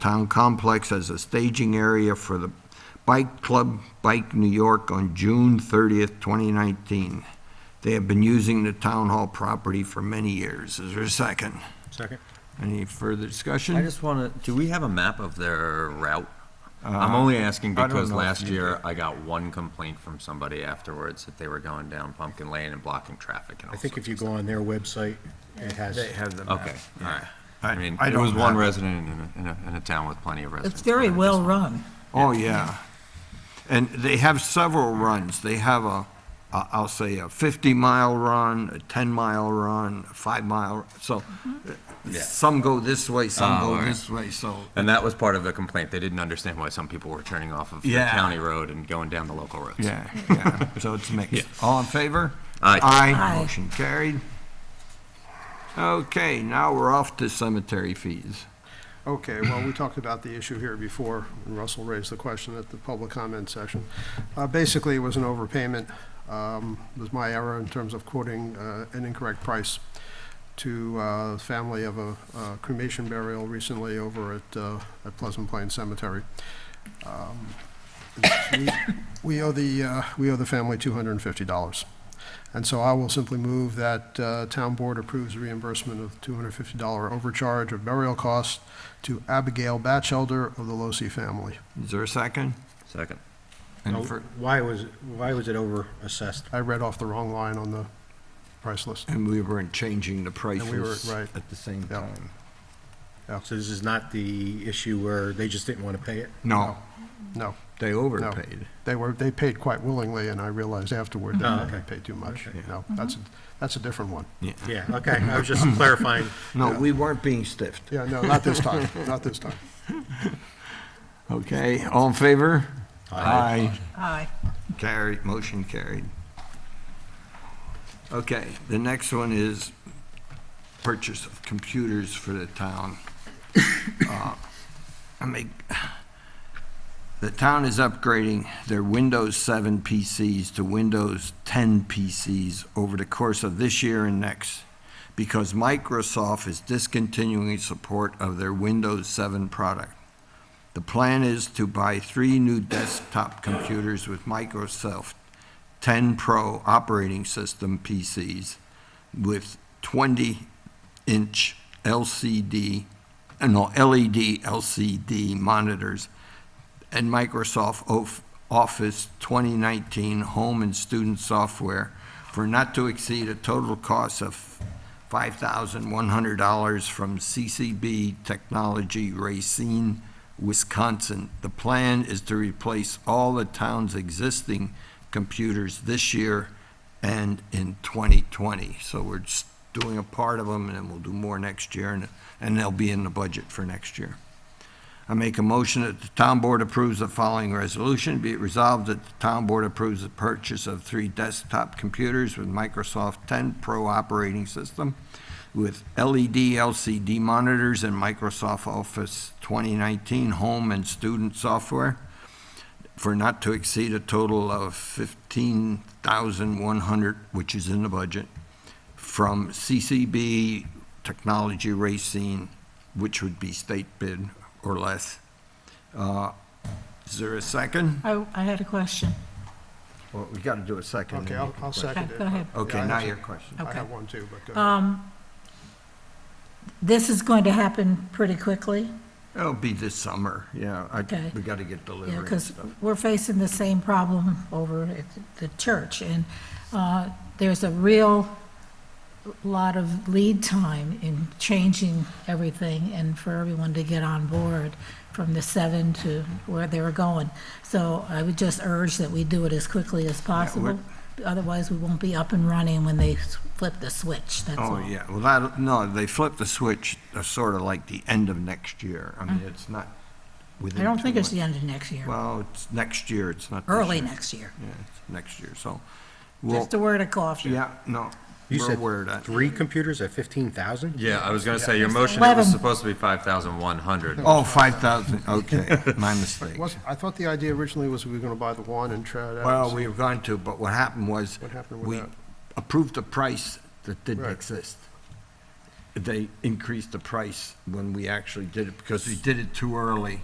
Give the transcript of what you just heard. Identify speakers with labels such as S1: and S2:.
S1: town complex as a staging area for the Bike Club Bike New York on June 30th, 2019. They have been using the town hall property for many years. Is there a second?
S2: Second.
S1: Any further discussion?
S3: I just want to, do we have a map of their route?
S1: Uh,
S3: I'm only asking
S2: Uh, I don't
S3: because
S2: know if
S3: last
S2: you
S3: year I got one complaint from somebody afterwards that they were going down Pumpkin Lane and blocking traffic and all
S2: I think if
S3: sorts.
S2: you go on their website, it has.
S4: They have them.
S3: Okay, all right.
S1: I-
S3: I mean,
S1: I
S3: it
S1: don't
S3: was one
S1: have-
S3: resident in a, in a, in a town with plenty of residents.
S5: It's very
S3: but I
S5: well
S3: just-
S5: run.
S1: Oh, yeah. And they have several runs. They have a, a- I'll say a 50-mile run, a 10-mile run, a 5-mile, so uh,
S3: Mm-hmm. Yeah.
S1: some go this way, some
S3: Oh, all
S1: go
S3: right.
S1: this way, so.
S3: And that was part of the complaint. They didn't understand why some people were turning off of the
S1: Yeah.
S3: county road and going down the local roads.
S1: Yeah, yeah, so it's mixed. All in favor?
S3: Aye.
S1: Aye.
S5: Aye.
S1: Motion carried. Okay, now we're off to cemetery fees.
S2: Okay, well, we talked about the issue here before, and Russell raised the question at the public comment session. Uh, Basically, it was an overpayment, um, was my error in terms of quoting uh, an incorrect price to uh, the family of a uh, cremation burial recently over at uh, at Pleasant Plain Cemetery. Um, we- We owe the, uh, we owe the family $250. And so I will simply move that uh, Town Board approves reimbursement of $250 overcharge of burial costs to Abigail Batchelder of the Losi family.
S1: Is there a second?
S3: Second.
S1: And
S6: Now,
S1: for-
S6: Why was, why was it over assessed?
S2: I read off the wrong line on the price list.
S1: And we weren't changing the
S2: we were-
S1: prices
S2: right.
S1: at the same
S2: Yeah.
S1: time.
S6: Oh, So this is not the issue where they just didn't want to pay it?
S1: No,
S2: No,
S1: they
S2: no.
S1: overpaid.
S2: They were, they paid quite willingly, and I realized afterward
S6: Oh,
S2: that they
S6: okay.
S2: paid too much.
S6: Okay.
S2: No,
S5: Mm-hmm.
S2: that's, a- that's a different one.
S1: Yeah.
S6: Yeah, okay, I was just clarifying.
S1: No, we weren't being stiffed.
S2: Yeah, no, not this time, not this time.
S1: Okay, all in favor? Aye.
S5: Aye.
S1: Carried, motion carried. Okay, the next one is purchase of computers for the town. Uh, I make, the town is upgrading their Windows 7 PCs to Windows 10 PCs over the course of this year and next because Microsoft is discontinuing support of their Windows 7 product. The plan is to buy three new desktop computers with Microsoft 10 Pro operating system PCs with 20-inch LCD, uh, no, LED LCD monitors and Microsoft Of- Office 2019 home and student software for not to exceed a total cost of $5,100 from CCB Technology Racine, Wisconsin. The plan is to replace all the town's existing computers this year and in 2020. So we're just doing a part of them, and then we'll do more next year, and and they'll be in the budget for next year. I make a motion that the town board approves the following resolution. Be it resolved that the town board approves the purchase of three desktop computers with Microsoft 10 Pro operating system with E LED LCD monitors and Microsoft Office 2019 home and student software for not to exceed a total of 15,100, which is in the budget, from CCB Technology Racine, which would be state bid or less. Uh, Is there a second?
S5: I, I had a question.
S1: Well, we got to do a second.
S2: Okay, I'll, I'll second
S5: Okay,
S2: it.
S5: go ahead.
S1: Okay,
S2: Yeah, I
S1: now
S2: have-
S1: your question.
S2: I
S5: Okay.
S2: have one too, but uh, go ahead.
S5: Um, this is going to happen pretty quickly,
S1: It'll be this summer, yeah. I-
S5: Okay.
S1: We got to get delivery
S5: you
S1: and
S5: because
S1: stuff.
S5: we're facing the same problem over at the church. And, uh, there's a real lot of lead time in changing everything and for everyone to get on board from the seven to where they were going. So I would just urge that we do it as quickly as
S1: we're-
S5: possible. Otherwise, we won't be up and running when they s- flip the switch, that's all.
S1: Oh, yeah, well, that, no, they flipped the switch, uh, sort of like the end of next year. I mean, it's not within.
S5: Mm. I don't
S1: two
S5: think it's
S1: months.
S5: the end of next year,
S1: Well, it's next year, it's not. this
S5: early
S1: year.
S5: next year.
S1: Yeah, it's next year, so. we'll
S5: Just a word of caution.
S1: Yeah, no,
S6: You
S1: we're
S6: said
S1: aware of that.
S6: three computers at 15,000?
S3: Yeah, I was gonna say, your motion, it was
S5: Eleven.
S3: supposed to be five thousand one hundred.
S1: Oh, 5,000, okay, my mistake.
S2: Was- I thought the idea originally was we were going to buy the one and try it out.
S1: Well, we were going to, but what happened was,
S2: What happened with
S1: we
S2: that?
S1: approved a price that didn't
S2: Right.
S1: exist. they increased the price when we actually did it because we did it too early.